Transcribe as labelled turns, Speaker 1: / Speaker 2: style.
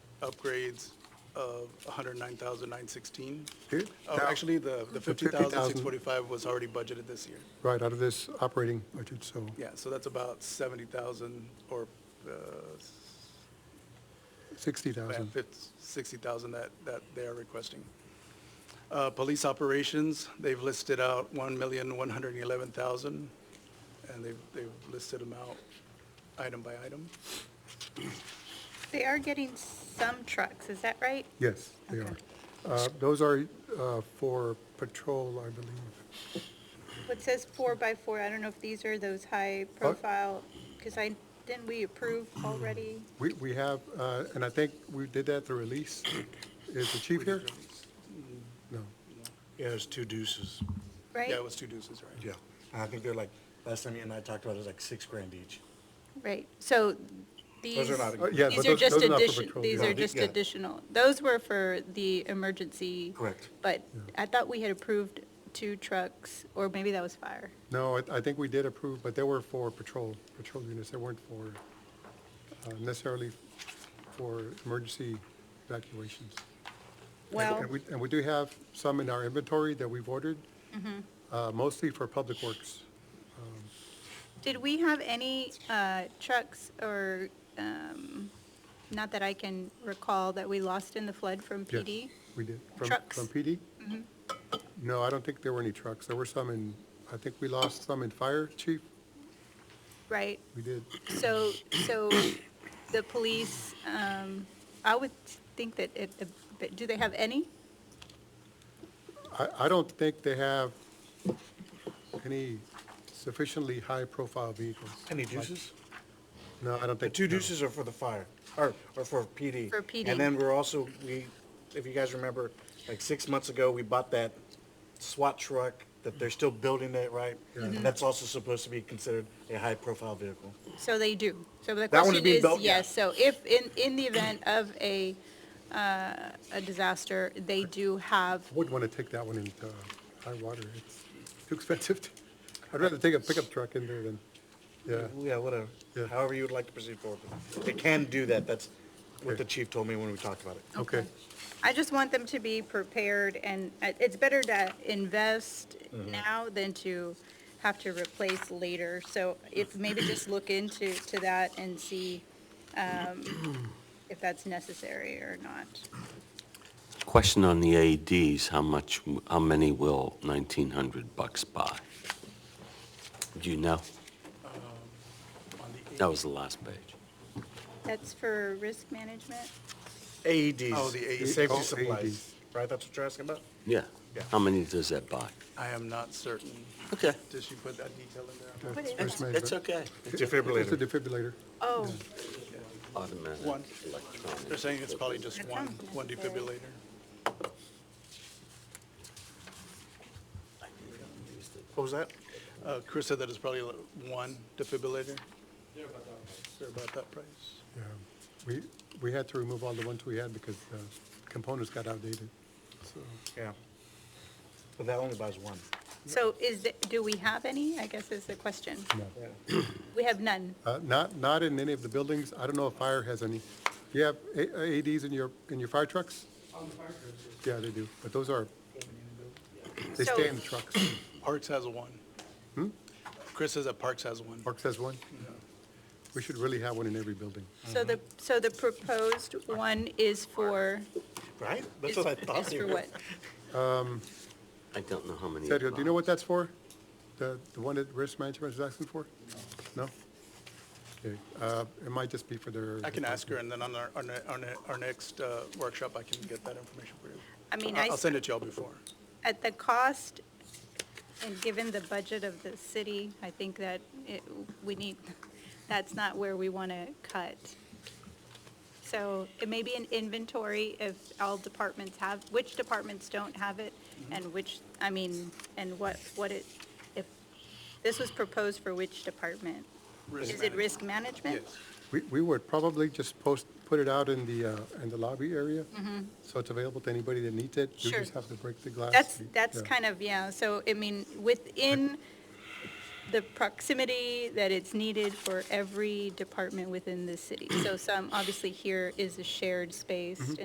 Speaker 1: upgrades of 109,916.
Speaker 2: Okay.
Speaker 1: Oh,
Speaker 2: Now-
Speaker 1: Actually, the the
Speaker 2: 50,000.
Speaker 1: 50,645 was already budgeted this year.
Speaker 2: Right, out of this operating budget, so,
Speaker 1: Yeah, so that's about 70,000 or uh, s- yeah,
Speaker 2: 60,000.
Speaker 1: fif- 60,000 that, that they are requesting. Uh, Police operations, they've listed out 1,111,000, and they've, they've listed them out item by item.
Speaker 3: They are getting some trucks, is that right?
Speaker 2: Yes, they
Speaker 3: Okay.
Speaker 2: are. Uh, Those are uh, for patrol, I believe.
Speaker 3: What says four by four, I don't know if these are those high profile, because I, didn't we approve already?
Speaker 2: We, we have, uh, and I think we did that through a lease. Is the chief here? No.
Speaker 4: Yeah, it's two deuces.
Speaker 3: Right?
Speaker 1: Yeah, it was two deuces, right?
Speaker 4: Yeah. And I think they're like, last time you and I talked about it, it was like six grand each.
Speaker 3: Right, so these,
Speaker 4: not-
Speaker 2: Uh, yeah, but
Speaker 3: these are
Speaker 2: those-
Speaker 3: just
Speaker 2: those are not for
Speaker 3: addition,
Speaker 2: patrol,
Speaker 3: these
Speaker 2: yeah.
Speaker 3: are just
Speaker 4: Yeah.
Speaker 3: additional. Those were for the emergency.
Speaker 4: Correct.
Speaker 3: But I thought we had approved two trucks, or maybe that was fire.
Speaker 2: No, I- I think we did approve, but they were for patrol, patrol units. They weren't for uh, necessarily for emergency evacuations. And-
Speaker 3: Well,
Speaker 2: And we, and we do have some in our inventory that we've ordered,
Speaker 3: Mm-hmm.
Speaker 2: uh, mostly for public works.
Speaker 3: did we have any uh, trucks or, um, not that I can recall, that we lost in the flood from
Speaker 2: Yes,
Speaker 3: PD?
Speaker 2: We did. From-
Speaker 3: Trucks?
Speaker 2: From PD? Mm-hmm. No, I don't think there were any trucks. There were some in, I think we lost some in fire, chief.
Speaker 3: Right,
Speaker 2: We did.
Speaker 3: so, so the police, um, I would think that it, but do they have any?
Speaker 2: I, I don't think they have any sufficiently high-profile vehicles.
Speaker 4: Any deuces?
Speaker 2: No, I don't
Speaker 4: The
Speaker 2: think.
Speaker 4: two
Speaker 2: no.
Speaker 4: deuces are for the fire, or, or for PD.
Speaker 3: For PD.
Speaker 4: And then we're also, we, if you guys remember, like six months ago, we bought that SWAT truck that they're still building it, right? And that's also supposed to be considered a high-profile vehicle.
Speaker 3: So they do. So the
Speaker 4: That one is
Speaker 3: question
Speaker 4: being
Speaker 3: is,
Speaker 4: built, yeah.
Speaker 3: yes, so if, in, in the event of a, uh, a disaster, they do have,
Speaker 2: I Wouldn't want to take that one into high water. It's too expensive. to- I'd rather take a pickup truck in there than, yeah.
Speaker 4: Yeah, whatever.
Speaker 2: Yeah.
Speaker 4: However you would like to proceed forward. with it. They can do that. That's what the chief told me when we talked about it.
Speaker 2: Okay.
Speaker 3: I just want them to be prepared, and it- it's better to invest
Speaker 4: Mm-hmm.
Speaker 3: now than to have to replace later. So if, maybe just look into, to that and see um, if that's necessary or not.
Speaker 5: Question on the AEDs, how much, how many will 1,900 bucks buy? Do you know?
Speaker 1: On the
Speaker 5: That was the last page.
Speaker 3: That's for risk management?
Speaker 4: AEDs.
Speaker 1: Oh, the AEDs.
Speaker 2: Oh,
Speaker 4: Safety
Speaker 2: AEDs.
Speaker 4: supplies, right? That's what you're asking about?
Speaker 5: Yeah.
Speaker 4: Yeah.
Speaker 5: How many does that buy?
Speaker 1: I am not certain.
Speaker 5: Okay.
Speaker 1: Did she put that detail in there?
Speaker 2: That's
Speaker 3: What is
Speaker 2: first
Speaker 3: that?
Speaker 2: management.
Speaker 5: That's okay.
Speaker 4: It's
Speaker 2: It's a
Speaker 4: defibrillator.
Speaker 2: defibrillator.
Speaker 3: Oh,
Speaker 5: Automatic,
Speaker 1: One.
Speaker 5: electronic.
Speaker 1: They're saying it's probably just
Speaker 3: That
Speaker 1: one,
Speaker 3: sounds
Speaker 1: one
Speaker 3: necessary.
Speaker 1: defibrillator.
Speaker 4: What was that?
Speaker 1: Uh, Chris said that it's probably like one defibrillator. They're about that price.
Speaker 2: Yeah. Um, We, we had to remove all the ones we had because the components got outdated. So
Speaker 4: Yeah. But that only buys one.
Speaker 3: so is, the- do we have any, I guess is the question.
Speaker 2: No.
Speaker 3: We have none.
Speaker 2: Uh, Not, not in any of the buildings. I don't know if fire has any. Do you have A- AEDs in your, in your fire trucks? Yeah, they do, but those are, they
Speaker 3: So-
Speaker 2: stay in the trucks.
Speaker 1: Parks has one.
Speaker 4: Hmm?
Speaker 1: Chris says that Parks has one.
Speaker 2: Parks has one? We should really have one in every building.
Speaker 3: So the, so the proposed one is for,
Speaker 4: Right?
Speaker 3: is
Speaker 4: That's what I thought.
Speaker 3: is for what?
Speaker 5: I don't know how many. it
Speaker 2: Sergio, do you know
Speaker 5: buys.
Speaker 2: what that's for? The, the one that risk management is asking for? No? Okay, uh, it might just be for their.
Speaker 1: I can ask her, and then on our, on our- on our, our next uh, workshop, I can get that information for you.
Speaker 3: I mean,
Speaker 1: I'll
Speaker 3: I,
Speaker 1: I'll send it to y'all before.
Speaker 3: at the cost, and given the budget of the city, I think that it, we need, that's not where we want to cut. So it may be an inventory if all departments have, which departments don't have it,
Speaker 1: Mm-hmm.
Speaker 3: and which, I mean, and what, what it, if, this was proposed for which department?
Speaker 1: Risk
Speaker 3: Is it
Speaker 1: management.
Speaker 3: risk management?
Speaker 1: Yes.
Speaker 2: We, we would probably just post, put it out in the, uh, in the lobby area. So it's available to anybody that needs it. You
Speaker 3: Sure.
Speaker 2: just have to break the glass.
Speaker 3: That's, that's
Speaker 2: Yeah.
Speaker 3: kind of, yeah, so, I mean, within the proximity that it's needed for every department within the city. So some, obviously here is a shared space